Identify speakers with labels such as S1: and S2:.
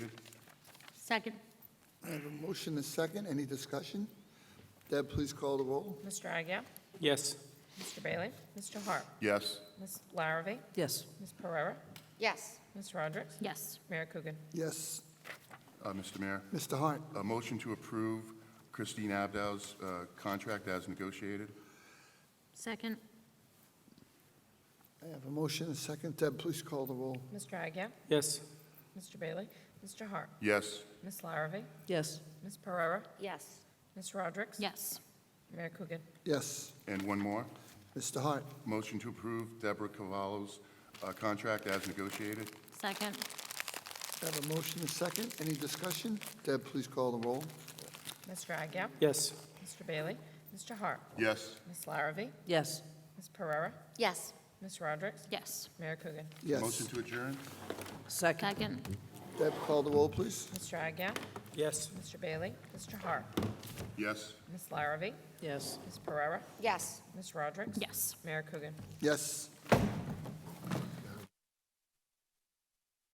S1: Second.
S2: I have a motion and second. Any discussion? Deb, please call the roll.
S3: Mr. Agia?
S4: Yes.
S3: Mr. Bailey? Mr. Hart?
S5: yes,
S3: Ms. Larrabee?
S6: yes,
S3: Ms. Pereira?
S7: yes,
S3: Ms. Roderick?
S1: Yes.
S3: Mayor Coogan?
S2: Yes,
S5: Uh, Mr. Mayor.
S2: Mr. Hart.
S5: A motion to approve Christine Abdow's uh, contract as negotiated.
S1: Second.
S2: I have a motion and second. Deb, please call the roll.
S3: Mr. Agia?
S4: Yes.
S3: Mr. Bailey? Mr. Hart?
S5: Yes,
S3: Ms. Larrabee?
S6: yes,
S3: Ms. Pereira?
S7: yes,
S3: Ms. Roderick?
S1: Yes.
S3: Mayor Coogan?
S2: Yes,
S5: and one more.
S2: Mr. Hart.
S5: Motion to approve Deborah Cavallo's uh, contract as negotiated.
S1: Second.
S2: I have a motion and second. Any discussion? Deb, please call the roll.
S3: Mr. Agia?
S4: Yes.
S3: Mr. Bailey? Mr. Hart?
S5: Yes,
S3: Ms. Larrabee?
S6: yes,
S3: Ms. Pereira?
S7: yes,
S3: Ms. Roderick?
S1: Yes.
S3: Mayor Coogan?
S2: Yes.
S5: motion to adjourn.
S6: second,
S1: Second.
S2: Deb, call the roll, please.
S3: Mr. Agia?
S4: Yes.
S3: Mr. Bailey? Mr. Hart?
S5: Yes.
S3: Ms. Larrabee?
S6: yes.
S3: Ms. Pereira?
S7: yes.
S3: Ms. Roderick?
S1: Yes.
S3: Mayor Coogan?
S2: Yes.